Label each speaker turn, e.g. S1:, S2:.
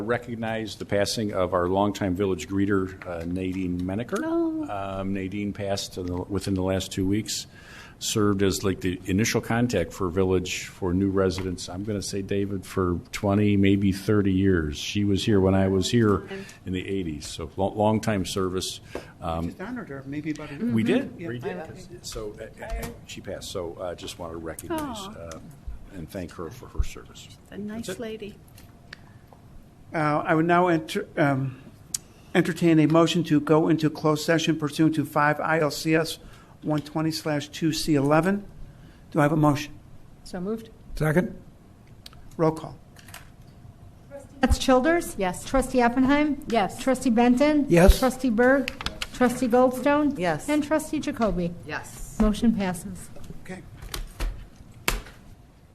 S1: recognize the passing of our longtime village greeter, uh, Nadine Menaker. Um, Nadine passed in the- within the last two weeks, served as like the initial contact for village, for new residents, I'm going to say, David, for 20, maybe 30 years. She was here when I was here in the 80s, so lo- long-time service. Um,
S2: Just honored her, maybe about a week.
S1: We did,
S2: Yeah.
S1: we did. So uh, uh, she passed, so I just want to recognize uh, and thank her for her service.
S3: A nice lady.
S2: Uh, I would now enter, um, entertain a motion to go into closed session pursuant to 5 ILCS 120/2C11. Do I have a motion?
S3: So moved?
S4: Second?
S2: Roll call.
S5: That's Childers?
S3: Yes.
S5: Trustee Oppenheim?
S3: Yes.
S5: Trustee Benton?
S4: Yes.
S5: Trustee Berg? Trustee Goldstone?
S6: Yes.
S5: And Trustee Jacoby?
S6: Yes.
S5: Motion passes.